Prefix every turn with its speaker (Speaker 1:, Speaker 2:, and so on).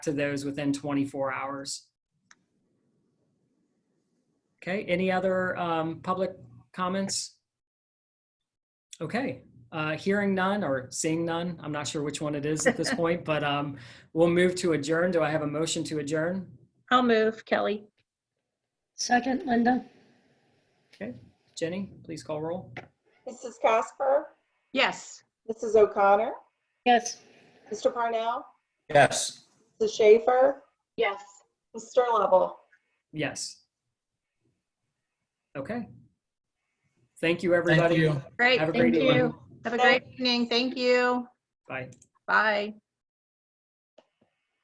Speaker 1: to those within 24 hours. Okay, any other um, public comments? Okay, uh, hearing none or seeing none, I'm not sure which one it is at this point, but um, we'll move to adjourn. Do I have a motion to adjourn?
Speaker 2: I'll move, Kelly.
Speaker 3: Second, Linda?
Speaker 1: Jenny, please call roll.
Speaker 4: Mrs. Casper?
Speaker 2: Yes.
Speaker 4: Mrs. O'Connor?
Speaker 3: Yes.
Speaker 4: Mr. Parnell?
Speaker 5: Yes.
Speaker 4: Mrs. Schaefer?
Speaker 2: Yes.
Speaker 4: Mr. Lovell?
Speaker 1: Yes. Okay. Thank you,
Speaker 5: Thank
Speaker 1: everybody.
Speaker 5: you.
Speaker 2: Great,
Speaker 1: Have a
Speaker 2: thank
Speaker 1: great evening.
Speaker 2: you. Have a great evening. Thank you.
Speaker 1: Bye.
Speaker 2: Bye.